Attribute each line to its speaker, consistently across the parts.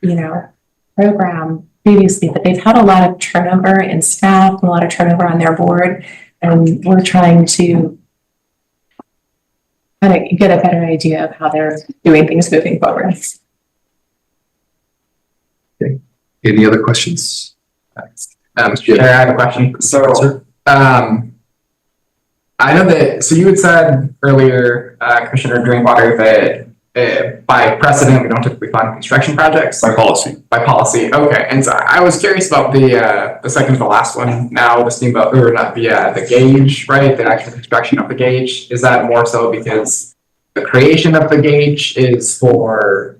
Speaker 1: you know, program previously, but they've had a lot of turnover in staff, and a lot of turnover on their board, and we're trying to kind of get a better idea of how they're doing things moving forward.
Speaker 2: Any other questions? Um,
Speaker 3: Chair, I
Speaker 2: Chair,
Speaker 3: have a question. So, um, I know that, so you had said earlier, uh, Commissioner Drinkwater, that, uh, by precedent, we don't typically fund construction projects
Speaker 4: by policy.
Speaker 3: by policy. Okay, and so I was curious about the, uh, the second to the last one now, the steamboat, or not, the, uh, the gauge, right? The actual construction of the gauge. Is that more so because the creation of the gauge is for,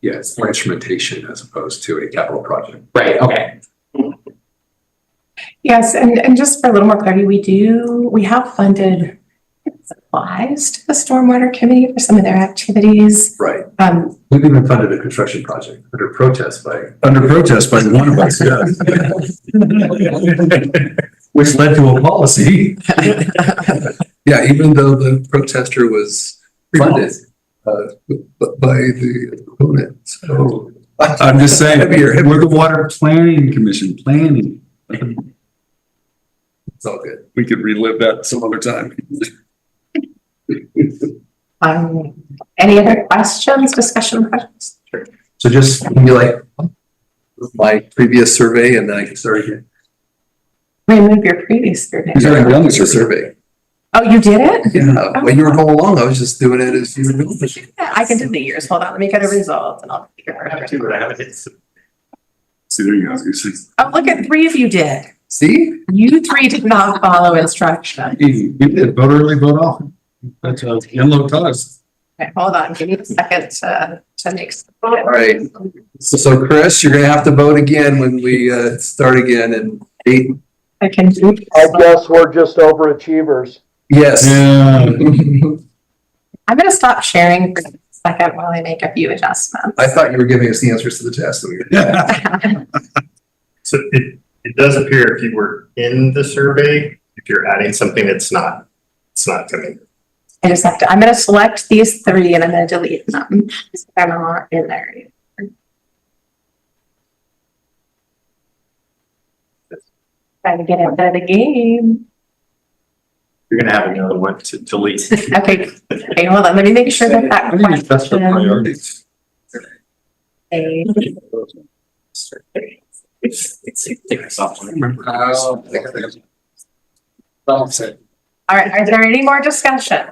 Speaker 2: yes, for instrumentation as opposed to a capital project.
Speaker 3: right, okay,
Speaker 1: Yes, and, and just for a little more clarity, we do, we have funded supplies to the Stormwater Committee for some of their activities.
Speaker 2: Right.
Speaker 1: Um,
Speaker 2: We've even funded a construction project under protest by.
Speaker 4: Under protest by one of us, yes.
Speaker 2: Which led to a policy. Yeah, even though the protester was funded uh, b- by the opponent, so.
Speaker 4: I'm just saying, we're the Water Planning Commission, planning.
Speaker 2: It's all good.
Speaker 4: We could relive that some other time.
Speaker 1: um, any other questions, discussion questions?
Speaker 2: So just be like, my previous survey and then I can start again.
Speaker 1: Remove your previous survey.
Speaker 4: Is there any other
Speaker 2: It's a survey.
Speaker 1: Oh, you did it?
Speaker 2: Yeah, when you were going along, I was just doing it as you were doing it.
Speaker 1: I can do the years. Hold on, let me get a result and I'll. figure it out.
Speaker 4: See, there you go. You see,
Speaker 1: Oh, look at three of you did.
Speaker 2: See?
Speaker 1: You three did not follow instruction.
Speaker 4: easy. You did vote early, vote often. That's a yellow cause.
Speaker 1: Okay, hold on, give me a second to, to make. some-
Speaker 2: All right. So, so Chris, you're gonna have to vote again when we, uh, start again and eight,
Speaker 1: I can do.
Speaker 5: I guess we're just overachievers.
Speaker 2: yes.
Speaker 4: Yeah.
Speaker 2: I
Speaker 1: I'm gonna stop sharing for a second while I make a few adjustments.
Speaker 2: thought you were giving us the answers to the test. when we were-
Speaker 4: Yeah.
Speaker 6: So it, it does appear if you were in the survey, if you're adding something that's not, it's not coming.
Speaker 1: I just have to, I'm gonna select these three and I'm gonna delete them. So They're not in there. Trying to get out of the game.
Speaker 6: You're gonna have another one to delete.
Speaker 1: Okay, okay, hold on, let me make sure that that
Speaker 4: I think it's best for
Speaker 1: question.
Speaker 4: priorities.
Speaker 1: is- All right, are there any more discussion?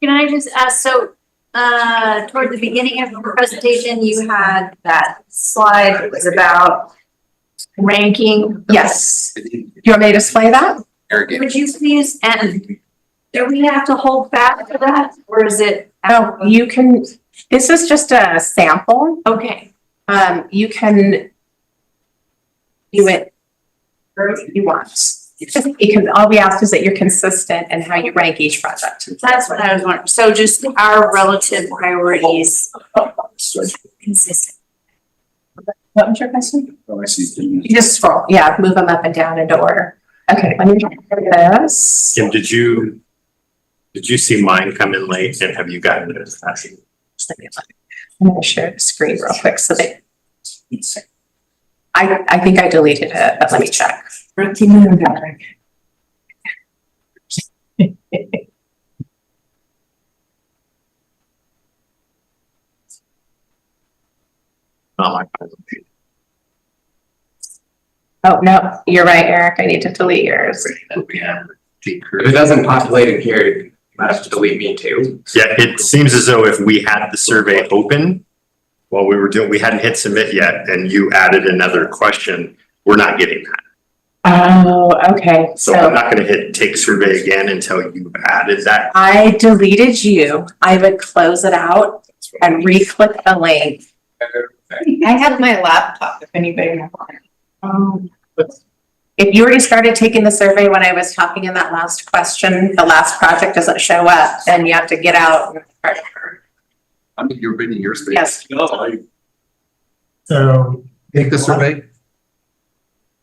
Speaker 7: Can I just ask, so, uh, toward the beginning of the presentation, you had that slide that was about ranking.
Speaker 1: Yes, you want me to display that?
Speaker 7: Would you please, and do we have to hold back for that, or is it?
Speaker 1: Oh, you can, this is just a sample.
Speaker 7: Okay.
Speaker 1: Um, you can do it however you want. Because all we ask is that you're consistent in how you rank each project.
Speaker 7: That's what I was wondering, so just our relative priorities consistent.
Speaker 1: What was your question?
Speaker 4: Oh, I see.
Speaker 1: You just scroll, yeah, move them up and down into order. Okay, let me try this.
Speaker 6: Kim, did you, did you see mine come in late and have you gotten it?
Speaker 1: I'm gonna share the screen real quick so that. I, I think I deleted it, but let me check.
Speaker 6: Not mine.
Speaker 1: Oh, no, you're right, Eric. I need to delete yours.
Speaker 3: if it doesn't populate in here, you might have to delete me too.
Speaker 6: Yeah, it seems as though if we had the survey open while we were doing, we hadn't hit submit yet and you added another question, we're not getting that.
Speaker 1: Oh, okay,
Speaker 6: So I'm not gonna hit take survey again until you've added that.
Speaker 1: I deleted you, I would close it out and re-click the link.
Speaker 8: I have my laptop if anybody wants.
Speaker 1: Um, If you already started taking the survey when I was talking in that last question, the last project doesn't show up, then you have to get out. and start over.
Speaker 2: I mean, you're reading your space.
Speaker 1: Yes,
Speaker 9: So,
Speaker 2: Take the survey,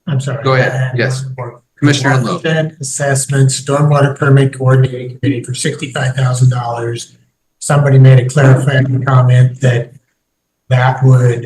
Speaker 9: I'm sorry. uh,
Speaker 2: Go ahead. Yes. Commissioner Enloe.
Speaker 9: Watershed Assessment, Stormwater Permit Coordinating Committee for sixty-five thousand dollars. Somebody made a clarifying comment that that would